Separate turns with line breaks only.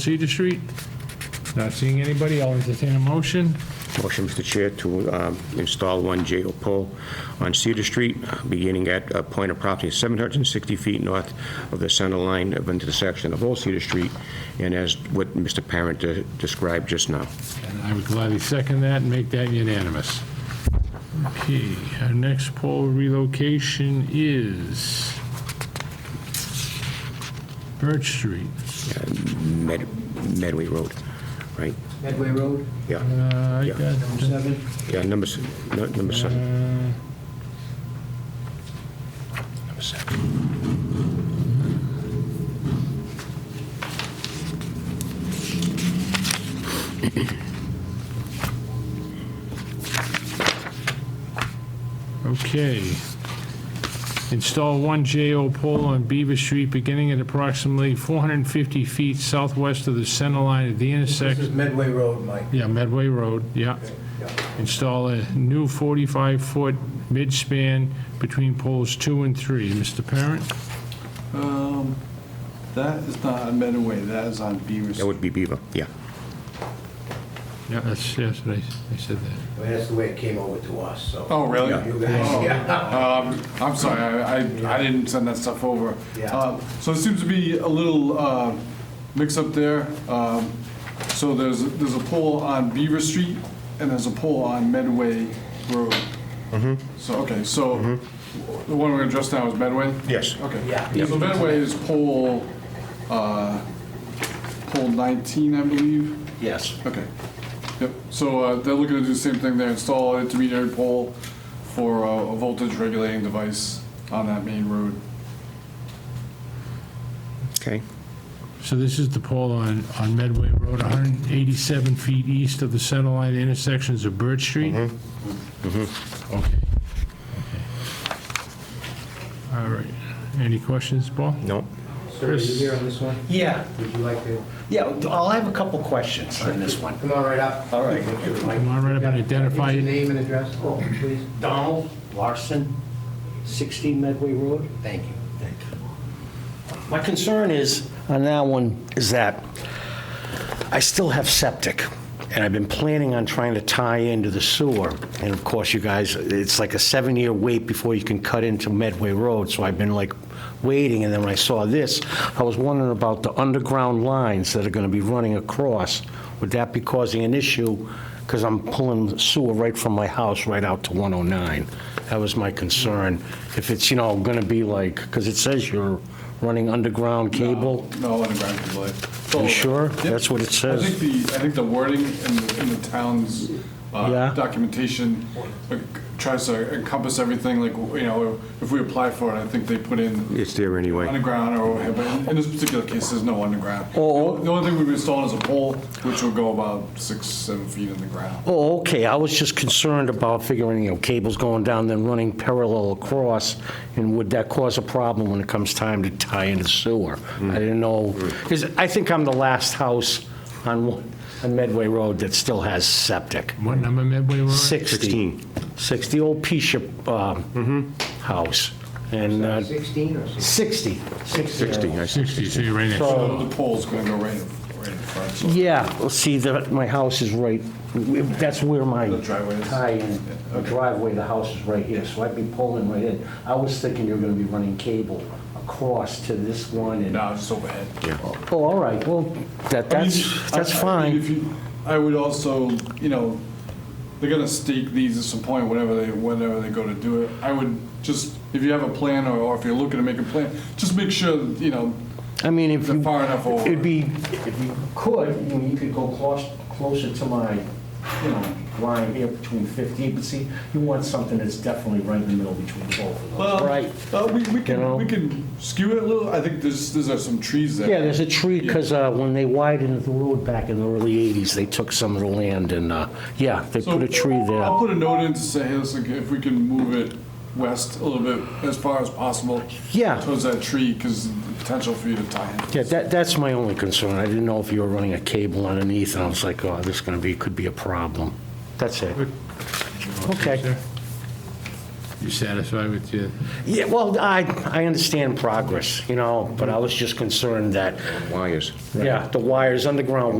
Cedar Street. Not seeing anybody, I'll entertain a motion.
Motion, Mr. Chair, to um, install one JO pole on Cedar Street, uh, beginning at a point of property 760 feet north of the center line of intersection of Old Cedar Street, and as what Mr. Parent uh, described just now.
And I would gladly second that and make that unanimous. Okay, our next poll relocation is Birch Street.
Med- Medway Road, right?
Medway Road,
Yeah,
Uh, I
Yeah.
got-
number seven.
yeah, number, s- no, number seven.
uh,
Number seven.
Okay. Install one JO pole on Beaver Street beginning at approximately 450 feet southwest of the center line at the
This is
intersection.
Medway Road, Mike.
Yeah, Medway Road, yeah. Install a new 45-foot midspan between poles two and three. Mr. Parent?
Um, That is not on Medway, that is on Beaver
That
Street.
would be Beaver, yeah.
Yeah, that's, yes, I I said that.
Well, That's the way it came over to us, so.
Oh, really?
Yeah.
You guys, yeah.
Um, I'm sorry, I, I- I didn't send that stuff over.
Yeah.
Um, So it seems to be a little uh, mix-up there. Um, So there's, there's a pole on Beaver Street, and there's a pole on Medway Road.
Mm-hmm.
So, okay, so the one we're gonna address now is Medway?
Yes.
Okay.
Yeah.
So Medway is pole, uh, pole 19, I believe.
Yes.
Okay. Yep, so uh, they're looking to do the same thing, they install an intermediary pole for uh, a voltage regulating device on that main road.
Okay,
So this is the pole on, on Medway Road, 187 feet east of the center line intersections of Birch Street? Okay. Okay. All right. Any questions, Paul?
no,
Sir, are you here on this one?
Yeah,
Would you like to
yeah, I'll have a couple questions on this one.
come on right up?
All right.
Come on, right up and identify,
What's your
it.
name and address? Oh, please.
Donald Larson, 16 Medway Road.
Thank you.
My concern is, on that one, is that I still have septic, and I've been planning on trying to tie into the sewer. And of course, you guys, it's like a seven-year wait before you can cut into Medway Road, so I've been like waiting, and then when I saw this, I was wondering about the underground lines that are gonna be running across. Would that be causing an issue? Because I'm pulling sewer right from my house right out to 109. That was my concern. If it's, you know, gonna be like, because it says you're running underground cable.
No underground cable. It's all
You
over.
sure?
Yep.
That's what it
I
says.
think the, I think the wording in the, in the town's uh,
Yeah.
documentation uh, tries to encompass everything, like, you know, if we apply for it, I think they put in
it's there anyway.
underground or overhead, but in- in this particular case, there's no underground. The
Oh, oh.
only- the only thing we've installed is a pole, which will go about six, seven feet in the ground.
Oh, okay, I was just concerned about figuring, you know, cables going down, then running parallel across, and would that cause a problem when it comes time to tie into sewer? I didn't know, because I think I'm the last house on one- on Medway Road that still has septic.
what number Medway Road?
60. 60, old Pisha um, house, and uh,
16 or 16?
60.
60, I see.
60, so you're right next to it.
So-
The pole's gonna go right, in- right in front, so
Yeah, well, see, the- my house is right, that's where my
The driveway is?
tie-in, the driveway, the house is right here, so I'd be pulling right in. I was thinking you were gonna be running cable across to this one and,
now it's just overhead.
oh, all right, well, that,
I mean,
that's,
I-
that's
I mean,
fine.
if you- I would also, you know, they're gonna stake these at some point, whenever they, whenever they go to do it. I would just, if you have a plan or- or if you're looking to make a plan, just make sure, you know,
I mean, if
they're
you,
far enough over.
it'd be, if you could, you know, you could go close, closer to my, you know, line here between 15, but see, you want something that's definitely right in the middle between both of
Well,
those, right?
Uh, we, we
You know?
can, we can skew it a little. I think there's, there's are some trees there.
Yeah, there's a tree, because when they widened the road back in the early 80s, they took some of the land and, uh, yeah, they
So
put a tree
I'll
there.
put a note in to say, hey, listen, if we can move it west a little bit as far as possible.
Yeah.
Towards that tree, because the potential for you to tie in.
Yeah, that, that's my only concern. I didn't know if you were running a cable underneath, and I was like, oh, this is going to be, could be a problem. That's it. Okay.
You satisfied with your,
Yeah, well, I, I understand progress, you know, but I was just concerned that,
Why is?
yeah, the wires, underground